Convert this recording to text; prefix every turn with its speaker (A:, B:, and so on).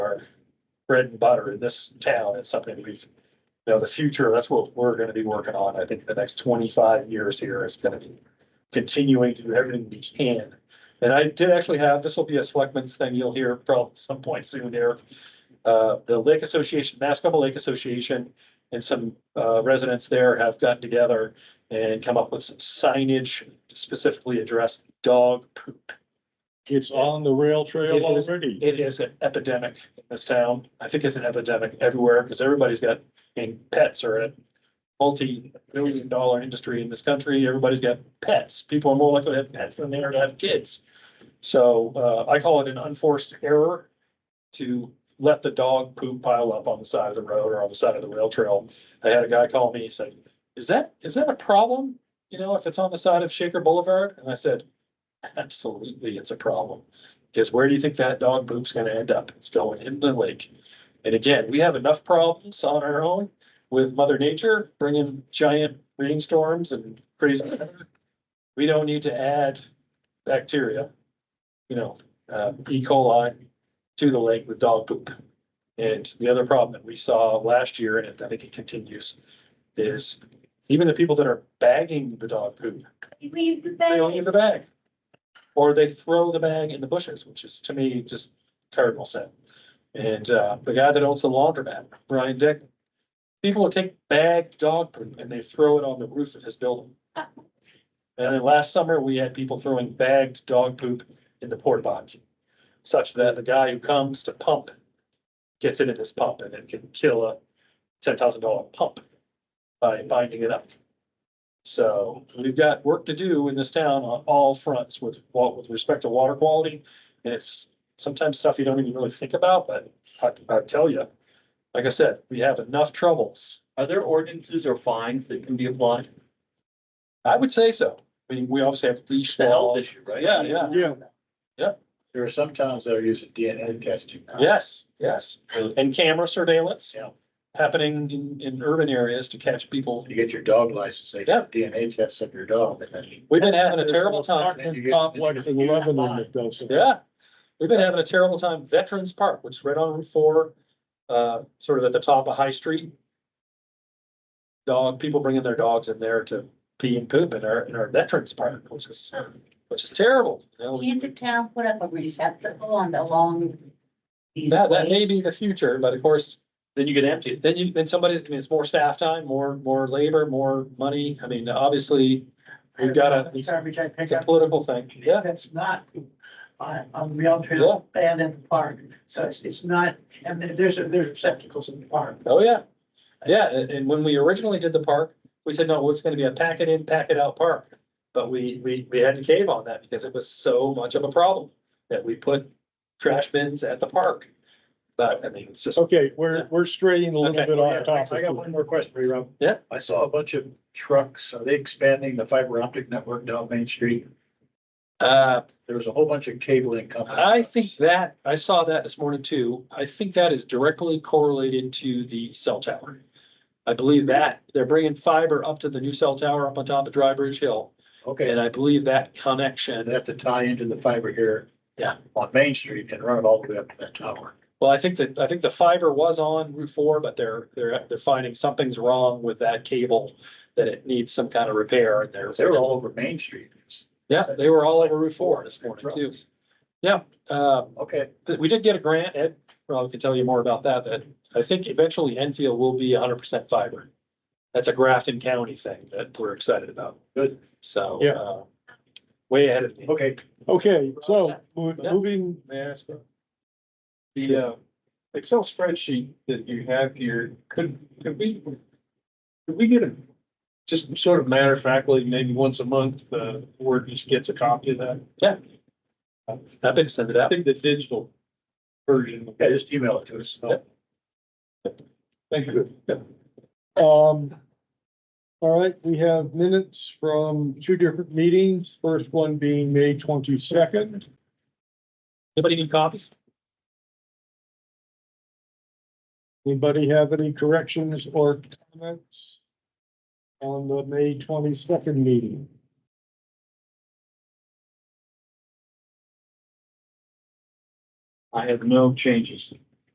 A: bread and butter in this town. It's something we've, you know, the future, that's what we're gonna be working on. I think the next twenty-five years here is gonna be continuing to do everything we can. And I did actually have, this will be a selectmen's thing you'll hear probably some point soon here. Uh, the Lake Association, Mascoma Lake Association and some uh residents there have gotten together and come up with some signage to specifically address dog poop.
B: It's on the rail trail
A: It is-
B: already.
A: It is an epidemic in this town. I think it's an epidemic everywhere because everybody's got, and pets are a multi-billion dollar industry in this country. Everybody's got pets. People are more likely to have pets than they are to have kids. So uh, I call it an unforced error to let the dog poop pile up on the side of the road or on the side of the rail trail. I had a guy call me, he said, is that, is that a problem? You know, if it's on the side of Shaker Boulevard? And I said, absolutely, it's a problem. Because where do you think that dog poop's gonna end up? It's going in the lake. And again, we have enough problems on our own with mother nature, bringing giant rainstorms and crazy. weather. We don't need to add bacteria, you know, uh, E. coli to the lake with dog poop. And the other problem that we saw last year, and I think it continues, is even the people that are bagging the dog poop,
C: Leave the
A: they don't leave the bag. Or they throw the bag in the bushes, which is to me just cardinal sin. And uh, the guy that owns the laundromat, Brian Dick, people will take bag dog poop and they throw it on the roof of his building. And then last summer, we had people throwing bagged dog poop in the porta potty. Such that the guy who comes to pump gets it in his pump and it can kill a ten thousand dollar pump by binding it up. So we've got work to do in this town on all fronts with, wa- with respect to water quality. And it's sometimes stuff you don't even really think about, but I, I tell you, like I said, we have enough troubles.
D: Are there ordinances or fines that can be applied?
A: I would say so. I mean, we obviously have leash
D: The health
A: laws.
D: issue, right?
A: Yeah, yeah.
B: Yeah,
E: There are some towns that are using DNA testing. now.
A: Yes, yes. And camera surveillance.
E: Yeah.
A: Happening in, in urban areas to catch people.
E: You get your dog license, they
A: Yeah.
E: do DNA tests of your dog. and then-
A: We've been having a terrible time.
B: Apartment complex in Lebanon that does it.
A: Yeah, we've been having a terrible time. Veterans Park, which is right on Route Four, uh, sort of at the top of High Street. Dog, people bringing their dogs in there to pee and poop in our, in our Veterans Park, which is, which is terrible. You know,
C: Can't the town put up a receptacle on the long? these
A: That, that
C: ways?
A: may be the future, but of course,
D: Then you get emptied.
A: then you, then somebody's, I mean, it's more staff time, more, more labor, more money. I mean, obviously, we've got a, it's
F: Garbage I pick
A: a
F: up.
A: political thing. Yeah,
F: That's not on, on rail
A: Yeah.
F: trail and in the park. So it's, it's not, and there- there's, there's receptacles in the park.
A: Oh, yeah. Yeah, and, and when we originally did the park, we said, no, it's gonna be a packet in, packet out park. But we, we, we had to cave on that because it was so much of a problem that we put trash bins at the park. But I mean, it's just,
B: Okay, we're, we're straying a
A: Okay.
B: little bit
E: I
B: off
E: got
B: topic.
E: one more question for you, Rob.
A: Yeah.
E: I saw a bunch of trucks. Are they expanding the fiber optic network down Main Street?
A: uh,
E: There was a whole bunch of cabling companies.
A: I think that, I saw that this morning too. I think that is directly correlated to the cell tower. I believe that they're bringing fiber up to the new cell tower up on top of Dry Bridge Hill.
E: Okay,
A: And I believe that
E: they
A: connection,
E: have to tie into the fiber here.
A: Yeah.
E: On Main Street and run it all the way up to that tower.
A: Well, I think that, I think the fiber was on Route four, but they're, they're, they're finding something's wrong with that cable. That it needs some kind of repair and they're,
E: They were all over Main Street.
A: yeah, they were all over Route four this morning too. Yeah, uh,
E: Okay,
A: th- we did get a grant, Ed probably can tell you more about that, that I think eventually Enfield will be hundred percent fiber. That's a Grafton County thing that we're excited about,
E: good.
A: so.
B: Yeah.
A: uh, Way ahead of me.
E: Okay.
B: Okay, so mo- moving,
G: May I ask? one? The uh, Excel spreadsheet that you have here, could, could we, could we get a, just sort of matter of factly, maybe once a month, uh, Word just gets a copy of that?
A: I've been sending it
G: I
A: out.
G: think the digital version,
E: Yeah, just email it to us.
G: thank you.
B: um, all right, we have minutes from two different meetings, first one being May twenty-second.
A: Anybody need copies?
B: Anybody have any corrections or comments on the May twenty-second meeting?
G: I have no changes.